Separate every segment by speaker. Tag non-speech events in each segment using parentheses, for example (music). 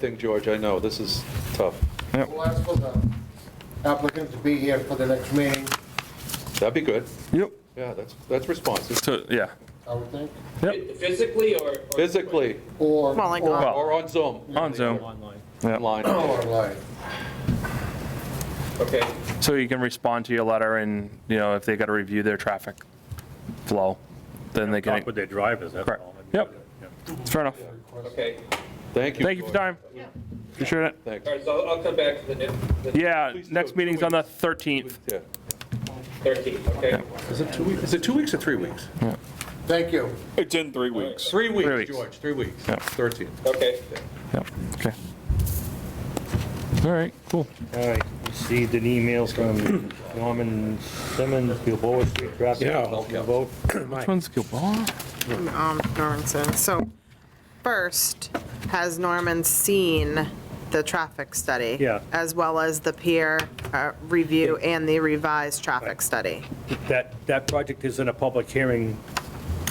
Speaker 1: thing, George, I know, this is tough.
Speaker 2: We'll ask for the applicant to be here for the next meeting,
Speaker 1: That'd be good.
Speaker 3: Yep.
Speaker 1: Yeah, that's, that's responsive.
Speaker 3: So, yeah.
Speaker 2: I would think,
Speaker 4: Physically or? or-
Speaker 1: Physically,
Speaker 2: or.
Speaker 5: Well, like
Speaker 2: or-
Speaker 5: on-
Speaker 1: or on Zoom,
Speaker 3: On Zoom.
Speaker 4: Online.
Speaker 3: Yeah.
Speaker 1: online.
Speaker 2: Or like,
Speaker 4: Okay,
Speaker 3: So you can respond to your letter and, you know, if they got to review their traffic flow, then they can.
Speaker 6: Talk with their drivers, that's
Speaker 3: Correct.
Speaker 6: all.
Speaker 3: Yep. Fair enough.
Speaker 4: okay.
Speaker 1: Thank you.
Speaker 3: Thank you
Speaker 1: George.
Speaker 3: for your time. Appreciate it.
Speaker 1: Thanks.
Speaker 4: All right, so I'll- I'll come back to the next- the
Speaker 3: Yeah,
Speaker 1: Please
Speaker 3: next
Speaker 1: do.
Speaker 3: meeting's on the 13th.
Speaker 1: Yeah.
Speaker 4: 13th, okay?
Speaker 1: Is it two weeks, is it two weeks or three weeks?
Speaker 2: Thank you.
Speaker 7: It's in three weeks.
Speaker 1: Three weeks,
Speaker 3: weeks.
Speaker 1: George, three weeks.
Speaker 3: Yeah.
Speaker 1: 13th.
Speaker 4: Okay.
Speaker 3: Yep, okay. All right, cool.
Speaker 6: All right, received an email from Norman Simmons, Gilboa Street Traffic.
Speaker 1: Yeah.
Speaker 6: (clears throat) Vote.
Speaker 3: Which one's Gilboa?
Speaker 5: um, Normanson. So first, has Norman seen the traffic study?
Speaker 6: Yeah.
Speaker 5: As well as the peer uh, review and the revised traffic study?
Speaker 6: That, that project is in a public hearing.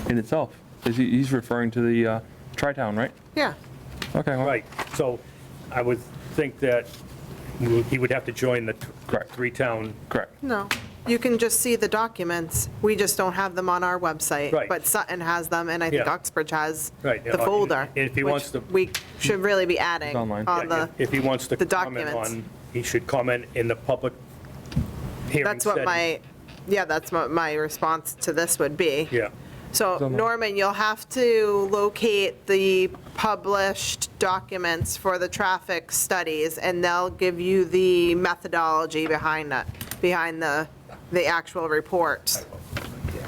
Speaker 3: In itself. Is he, he's referring to the uh, Tri-Town, right?
Speaker 5: Yeah,
Speaker 3: Okay. well,
Speaker 6: Right, so I would think that we would- he would have to join the t-
Speaker 3: Correct.
Speaker 6: three-town.
Speaker 3: Correct.
Speaker 5: no, you can just see the documents, we just don't have them on our website.
Speaker 6: Right.
Speaker 5: But Sutton has them, and I think
Speaker 6: Yeah.
Speaker 5: Oxbridge has
Speaker 6: Right,
Speaker 5: the
Speaker 6: uh,
Speaker 5: folder.
Speaker 6: if he
Speaker 5: which
Speaker 6: wants to-
Speaker 5: We should really be adding
Speaker 3: online.
Speaker 5: on the,
Speaker 6: If he wants to
Speaker 5: the
Speaker 6: comment
Speaker 5: documents.
Speaker 6: on, he should comment in the public hearing.
Speaker 5: that's what
Speaker 6: setting.
Speaker 5: my, yeah, that's what my response to this would be.
Speaker 6: Yeah,
Speaker 5: So Norman, you'll have to locate the published documents for the traffic studies, and they'll give you the methodology behind that, behind the, the actual reports.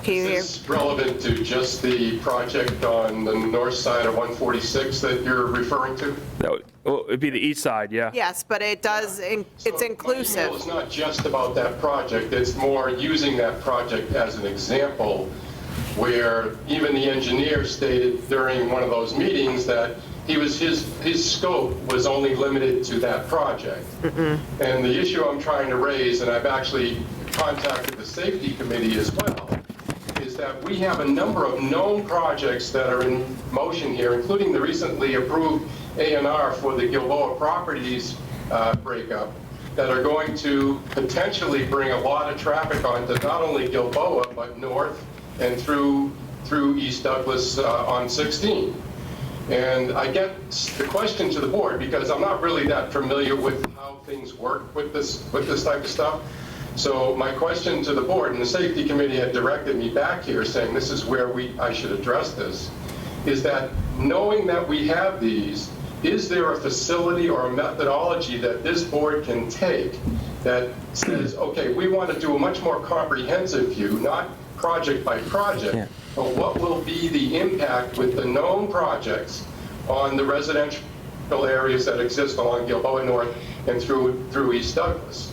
Speaker 5: Can you hear?
Speaker 8: This is relevant to just the project on the north side of 146 that you're referring to?
Speaker 3: That would, oh, it'd be the east side, yeah.
Speaker 5: Yes, but it does, in- it's
Speaker 8: My email is
Speaker 5: inclusive.
Speaker 8: not just about that project, it's more using that project as an example, where even the engineer stated during one of those meetings that he was, his, his scope was only limited to that project. And the issue I'm trying to raise, and I've actually contacted the safety committee as well, is that we have a number of known projects that are in motion here, including the recently approved A and R for the Gilboa Properties uh, breakup, that are going to potentially bring a lot of traffic onto not only Gilboa, but north and through, through East Douglas uh, on 16. And I get the question to the board, because I'm not really that familiar with how things work with this, with this type of stuff. So my question to the board, and the safety committee had directed me back here, saying this is where we, I should address this, is that knowing that we have these, is there a facility or a methodology that this board can take that says, okay, we want to do a much more comprehensive view, not project by project, but what will be the impact with the known projects on the residential areas that exist along Gilboa North and through, through East Douglas?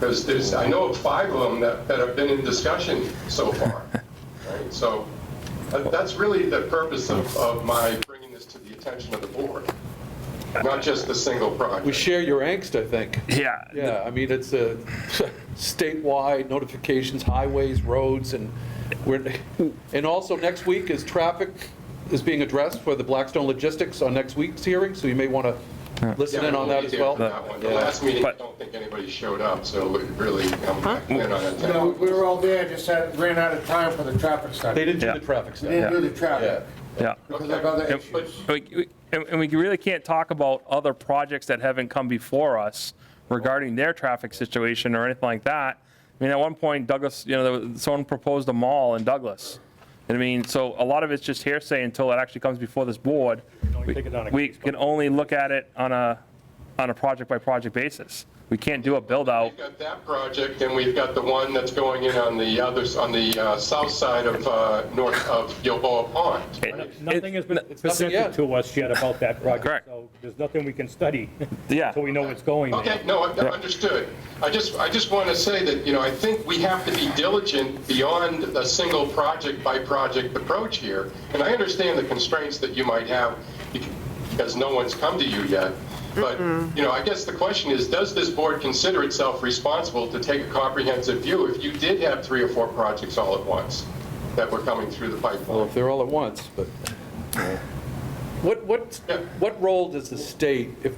Speaker 8: Because there's, I know of five of them that, that have been in discussion so far, right? So that- that's really the purpose of, of my bringing this to the attention of the board, not just the single project.
Speaker 1: We share your angst, I think.
Speaker 3: Yeah.
Speaker 1: Yeah, I mean, it's a statewide notifications, highways, roads, and we're, and also next week is traffic is being addressed for the Blackstone Logistics on next week's hearing, so you may want to listen
Speaker 8: Yeah,
Speaker 1: in on
Speaker 8: we'll
Speaker 1: that
Speaker 8: be
Speaker 1: as
Speaker 8: there
Speaker 1: well.
Speaker 8: for that one. The
Speaker 1: Yeah.
Speaker 8: last meeting, I
Speaker 3: But-
Speaker 8: don't think anybody showed up, so it really, I'm not planning on
Speaker 2: You know,
Speaker 8: attending.
Speaker 2: we were all there, just had, ran out of time for the traffic
Speaker 1: They
Speaker 2: study.
Speaker 1: didn't do
Speaker 3: Yeah.
Speaker 1: the traffic
Speaker 2: We
Speaker 1: study.
Speaker 2: Didn't do the traffic
Speaker 3: Yeah.
Speaker 2: because of other
Speaker 3: Yep.
Speaker 2: issues.
Speaker 3: We- we- And and we really can't talk about other projects that haven't come before us regarding their traffic situation or anything like that. I mean, at one point Douglas, you know, there was- someone proposed a mall in Douglas. And I mean, so a lot of it's just hearsay until it actually comes before this board.
Speaker 6: only take it on a
Speaker 3: We
Speaker 6: case by
Speaker 3: can only look at it on a, on a project-by-project basis. We can't do a build-out.
Speaker 8: We've got that project, and we've got the one that's going in on the others, on the uh, south side of, uh, north of Gilboa Pond. right?
Speaker 6: nothing has been
Speaker 1: nothing yet.
Speaker 6: presented to us yet about that
Speaker 3: Correct.
Speaker 6: project, so there's nothing we can study (laughs)
Speaker 3: Yeah.
Speaker 6: until we know what's going there.
Speaker 8: Okay, no, I- I understood. I just, I just want to say that, you know, I think we have to be diligent beyond a single project-by-project approach here. And I understand the constraints that you might have because no one's come to you yet. But, you know, I guess the question is, does this board consider itself responsible to take a comprehensive view if you did have three or four projects all at once that were coming through the
Speaker 1: Well,
Speaker 8: pipeline?
Speaker 1: if they're all at once, but. What, what,
Speaker 8: Yeah.
Speaker 1: what role does the state, if